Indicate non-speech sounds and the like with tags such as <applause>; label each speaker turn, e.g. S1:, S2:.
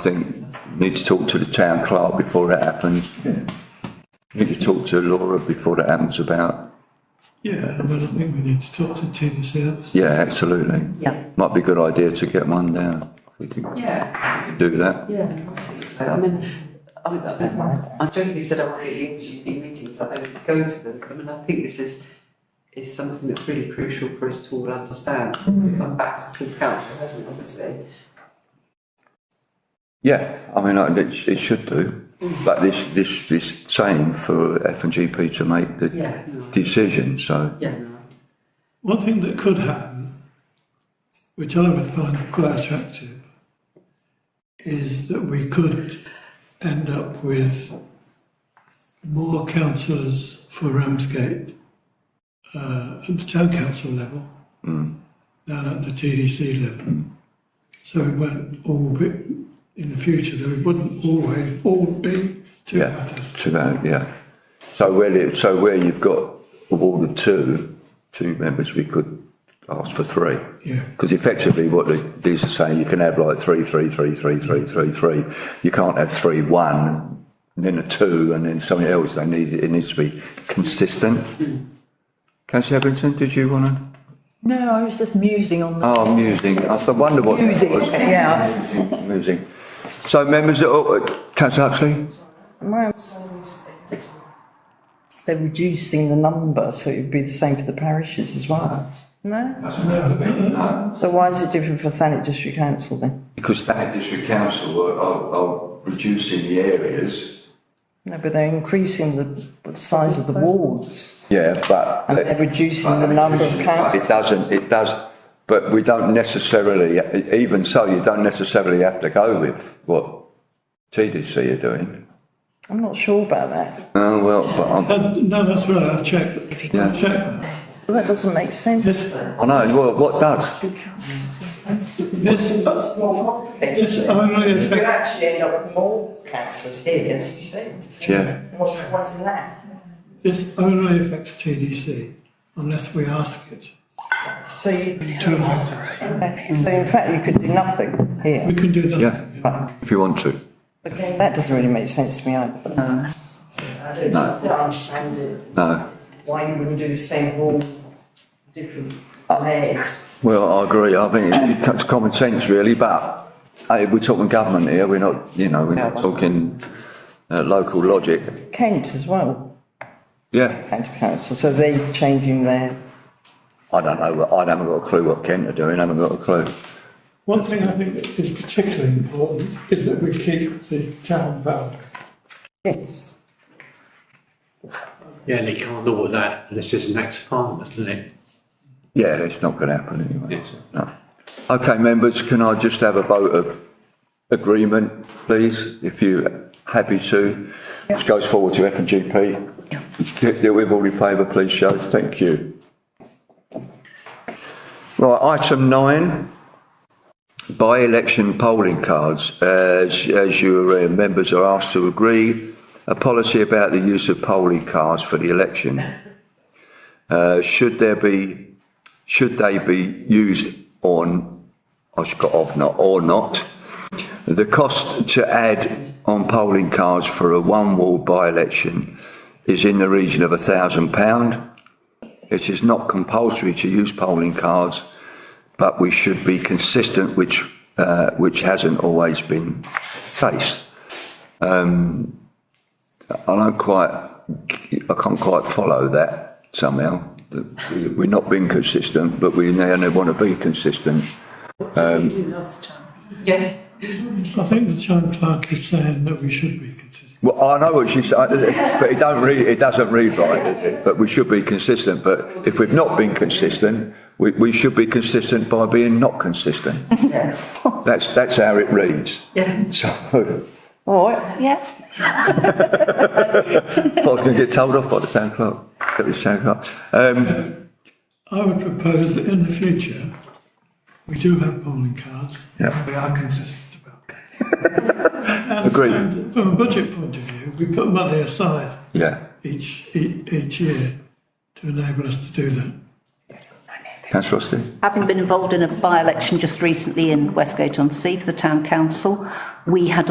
S1: I think need to talk to the town clerk before it happens. Need to talk to Laura before that happens about,
S2: Yeah, I mean, I think we need to talk to Tim ourselves.
S1: yeah, absolutely.
S3: Yeah.
S1: Might be a good idea to get one down. We can
S4: Yeah,
S1: do that.
S4: yeah. I think So, I mean, I, I, I jokingly said I really enjoy the meetings, I don't go to them, I mean, I think this is, is something that's really crucial for us to all understand. I'm back to council, hasn't it, obviously?
S1: Yeah, I mean, I- it, sh- it should do. But this, this, this same for F and GP to make the
S4: Yeah, no.
S1: decision, so.
S4: Yeah, no.
S2: One thing that could happen, which I would find quite attractive, is that we could end up with more councillors for Ramsgate uh, at the town council level than at the TDC level. So it won't all be, in the future, there wouldn't always all be two
S1: Yeah.
S2: matters.
S1: To that, yeah. So where, it- so where you've got of all the two, two members, we could ask for three.
S2: Yeah.
S1: Because effectively what the, these are saying, you can have like three, three, three, three, three, three, three. You can't have three, one, and then a two, and then something else. They need, it needs to be consistent. Councillor Everton, did you want to?
S3: No, I was just musing on
S5: Uh,
S3: the.
S1: Oh, musing. I thought- wonder what that
S3: Musing,
S1: was.
S3: yeah.
S1: Musing, Musing. So members, oh, uh, councillor Huxley?
S5: They're reducing the number, so it would be the same for the parishes as well. No? So why is it different for Thanet District Council then?
S1: Because that district council are, are, are reducing the areas.
S5: No, but they're increasing the, the size of the wards
S1: Yeah, but.
S5: and they're reducing the number of
S1: It
S5: councils.
S1: doesn't, it does, but we don't necessarily, even so, you don't necessarily have to go with what TDC are doing.
S5: I'm not sure about that.
S1: Oh, well, but
S2: Uh, No, that's right, I've checked,
S1: Yeah.
S2: I've checked that.
S5: Well, That doesn't make sense.
S2: This,
S1: I'm, I know, well, what does?
S2: this is, this only
S5: You could
S2: affects
S5: actually end up with more councillors here, as you said.
S1: Yeah.
S5: What's the point in that?
S2: This only affects TDC unless we ask it.
S5: So you,
S2: To affect
S5: so in fact, you could do nothing
S2: it. We
S5: here.
S2: can do
S1: Yeah,
S2: nothing.
S1: if you want to.
S5: Again, that doesn't really make sense to me either. I don't understand it,
S1: No.
S5: why you wouldn't do the same rule, different layers.
S1: Well, I agree. I think it- it's common sense really, but hey, we're talking government here. We're not, you know, we're not talking uh, local logic.
S5: Kent as well,
S1: Yeah.
S5: Kent Council, so they changing their,
S1: I don't know. I haven't got a clue what Kent are doing. I haven't got a clue.
S2: One thing I think that is particularly important is that we keep the town boundary.
S5: yes.
S6: Yeah, they can't do all that, this is an ex-farm, isn't it?
S1: Yeah, that's not going to happen anyway. is it? No. Okay, members, can I just have a vote of agreement, please, if you're happy to? This goes forward to F and GP. Deal- Deal with all in favour, please, show. Thank you. Right, item nine, by-election polling cards. As, as you are aware, members are asked to agree a policy about the use of polling cards for the election. Uh, should there be should they be used on, I've got off not, or not. The cost to add on polling cards for a one wall by election is in the region of a thousand pound. It is not compulsory to use polling cards, but we should be consistent, which, uh, which hasn't always been faced. Um, I don't quite, I can't quite follow that somehow. that we- We're not being consistent, but we now want to be consistent.
S4: Yeah,
S2: I think the town clerk is saying that we should be consistent.
S1: Well, I know what she's saying, but it don't read, it doesn't read right, does it? But we should be consistent, but if we've not been consistent, we, we should be consistent by being not consistent. That's, that's how it reads.
S4: yeah.
S1: So,
S5: All right,
S3: Yes.
S1: I was going to get told off by the sound clerk, Get the sound clerk. Um,
S2: I would propose that in the future, we do have polling cards.
S1: Yeah.
S2: We are consistent about that.
S1: <laughs> Agreed.
S2: And From a budget point of view, we put money aside
S1: yeah,
S2: each, each, each year to enable us to do that.
S1: councillor Austin?
S7: Having been involved in a by-election just recently in Westgate on Sea for the Town Council, we had